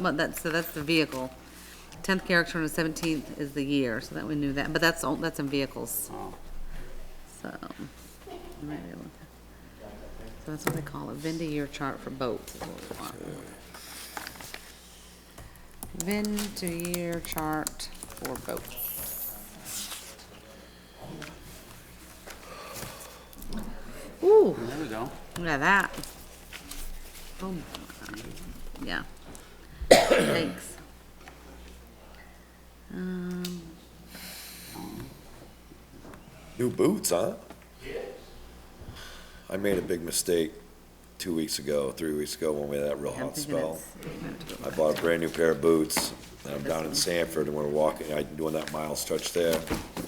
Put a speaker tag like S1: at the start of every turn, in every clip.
S1: Well, that's, so that's the vehicle. Tenth character and the seventeenth is the year, so that we knew that, but that's, all- that's in vehicles.
S2: Oh,
S1: So. you might be able to- So that's what they call a Venn year chart for boats. is what we want. Venn to year chart for boats. Ooh,
S2: There we go.
S1: look at that. Oh, my. yeah. Thanks. Um,
S3: New boots, huh? I made a big mistake two weeks ago, three weeks ago, when we had that real
S1: I'm
S3: hot
S1: thinking
S3: spell.
S1: it's. I have to go
S3: I
S1: back.
S3: bought a brand new pair of boots, and I'm down in
S1: This
S3: Sanford, and we're walking, I'm doing that mile stretch there,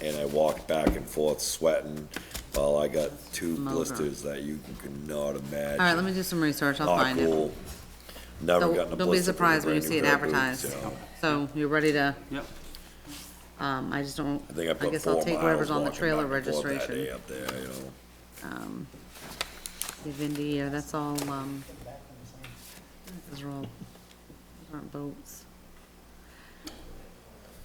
S3: and I walked back and forth sweating, while I got two
S1: Motor.
S3: blisters that you could not imagine.
S1: All right, let me do some research, I'll find it.
S3: cool. Never
S1: Don't-
S3: gotten a blister.
S1: Don't be
S3: from a
S1: surprised when you
S3: brand new
S1: see it
S3: pair of boots,
S1: advertised. So
S3: so.
S1: you're ready to,
S2: Yep.
S1: um, I just don't,
S3: I think I
S1: I
S3: put
S1: guess I'll
S3: four
S1: take whatever's
S3: miles
S1: on the
S3: walking
S1: trailer
S3: back and forth that day
S1: registration.
S3: up there, you know.
S1: The Vindy year, uh, that's all, um, those are all, those aren't boats.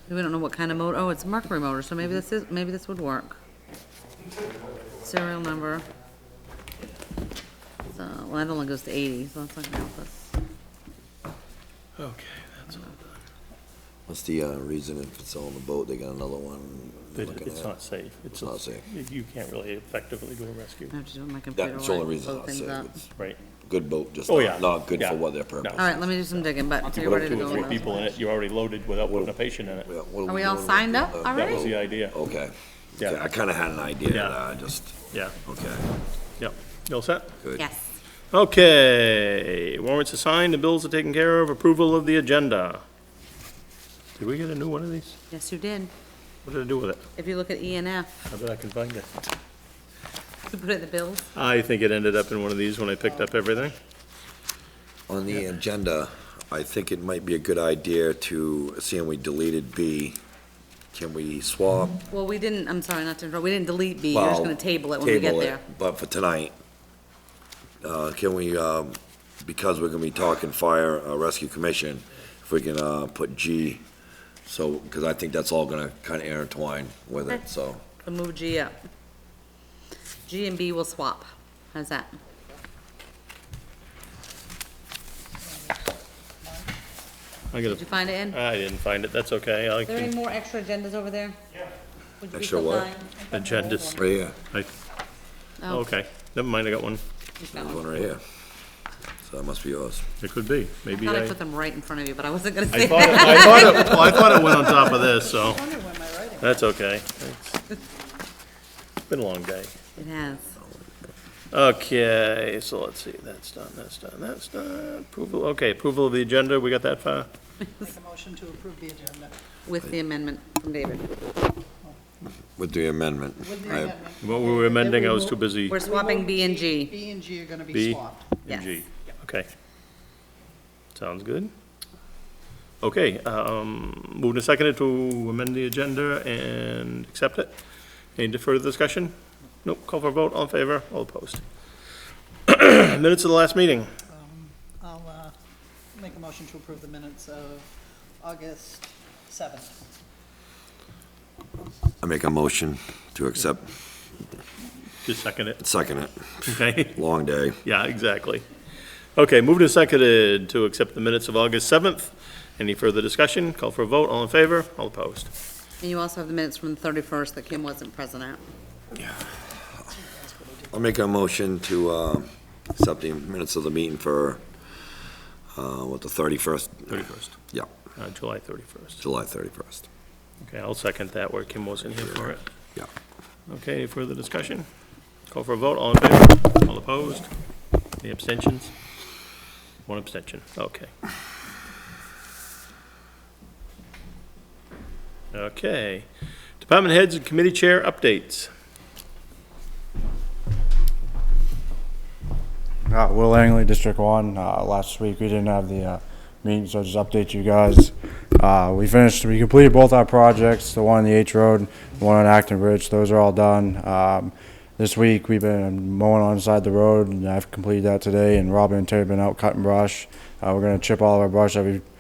S1: We don't know what kind of motor, oh, it's a Mercury motor, so maybe this is, maybe this would work. Serial number. So, well, that only goes to eighty, so that's not gonna help us.
S4: Okay, that's all done.
S3: What's the uh, reason if it's on the boat, they got another one they're
S4: It-
S3: looking
S4: It's not
S3: at?
S4: safe.
S3: It's not safe.
S4: You can't really effectively do a rescue,
S1: I have to do it on my computer. while
S3: That's the
S1: I
S3: only reason
S1: load
S3: I
S1: things
S3: said
S1: up.
S3: it's
S4: right?
S3: good boat, just
S4: Oh,
S3: not,
S4: yeah.
S3: not good
S4: Yeah.
S3: for what their
S4: No.
S3: purpose.
S1: All right, let me do some digging, but
S2: take
S1: you're ready to
S3: two
S4: Two
S1: go.
S3: or
S4: or
S1: on
S4: three
S1: that.
S4: people in it, you're already loaded without putting a patient in it.
S3: Yeah, what
S1: Are
S3: we
S1: we all
S3: doing
S1: signed
S3: with
S1: up
S3: the-
S1: already?
S4: That was the idea.
S3: Okay.
S4: Yeah.
S3: Okay, I kinda had an idea,
S4: Yeah.
S3: uh, just,
S4: Yeah,
S3: okay,
S4: yep. You all set?
S3: good.
S1: Yes.
S4: Okay, warrants are signed, the bills are taken care of, approval of the agenda. Did we get a new one of these?
S1: Yes, you did.
S4: What did I do with it?
S1: If you look at E and F,
S4: I bet I can find it.
S1: you put it in the bills.
S4: I think it ended up in one of these when I picked up everything.
S3: On the agenda, I think it might be a good idea to, seeing we deleted B, can we swap?
S1: Well, we didn't, I'm sorry, not to interrupt, we didn't delete B, you're just
S3: Well,
S1: gonna table it when we get
S3: table it,
S1: there.
S3: But for tonight, uh, can we, um, because we're gonna be talking fire, uh, rescue commission, if we can, uh, put G, so, because I think that's all gonna kinda intertwine with
S1: Okay.
S3: it, so.
S1: So move G up. G and B will swap. How's that?
S4: I got
S1: Did you
S4: it.
S1: find it in? Are
S4: I didn't find it, that's okay. I
S1: there any
S4: can,
S1: more extra agendas over there? Yeah. Would you be
S3: Extra
S1: so
S3: what?
S1: kind?
S4: agendas,
S3: Right here,
S4: I,
S1: Oh,
S4: okay, never mind, I got one.
S1: just got
S3: there's
S1: one.
S3: one right here. So that must be yours.
S4: It could be,
S1: I
S4: maybe
S1: thought
S4: I.
S1: I put them right in front of you, but I wasn't gonna
S4: I
S1: say
S4: thought,
S1: that.
S4: it, I thought it, well, I thought it went on top of this, so. That's okay. It's Been a long day.
S1: It has.
S4: Okay, so let's see, that's done, that's done, that's done. Approval, okay, approval of the agenda, we got that far?
S5: Make a motion to approve the agenda.
S1: With the amendment from David.
S3: With the amendment.
S5: With the
S3: I-
S5: amendment,
S4: What we were amending, I was too busy.
S1: We're swapping B and G.
S5: B and G are gonna be
S4: B.
S5: swapped.
S4: and G.
S1: Yes.
S4: Okay. Sounds good. Okay, um, moved and seconded to amend the agenda and accept it. Any further discussion? Nope, call for a vote, all in favor, all opposed. Minutes of the last meeting.
S5: I'll, uh, make a motion to approve the minutes of August seventh.
S3: I make a motion to accept,
S4: Just second it,
S3: second it,
S4: okay?
S3: long day.
S4: Yeah, exactly. Okay, moved and seconded to accept the minutes of August 7th. Any further discussion? Call for a vote, all in favor, all opposed.
S1: And you also have the minutes from the thirty-first that Kim wasn't present at.
S3: I'll make a motion to, uh, accept the minutes of the meeting for, uh, what, the thirty-first?
S4: 31st.
S3: Yeah,
S4: Uh, July 31st.
S3: July thirty-first,
S4: Okay, I'll second that where Kim wasn't here for it.
S3: yeah.
S4: Okay, any further discussion? Call for a vote, all in favor, all opposed, any abstentions? One abstention, okay. Okay, department heads and committee chair updates.
S6: Uh, Will Langley, District One, uh, last week, we didn't have the, uh, meeting, so just update you guys. Uh, we finished, we completed both our projects, the one on the H Road, the one on Acton Bridge, those are all done. Um, this week, we've been mowing on the side of the road, and I've completed that today, and Robin and Terry have been out cutting brush. Uh, we're gonna chip all of our brush that we've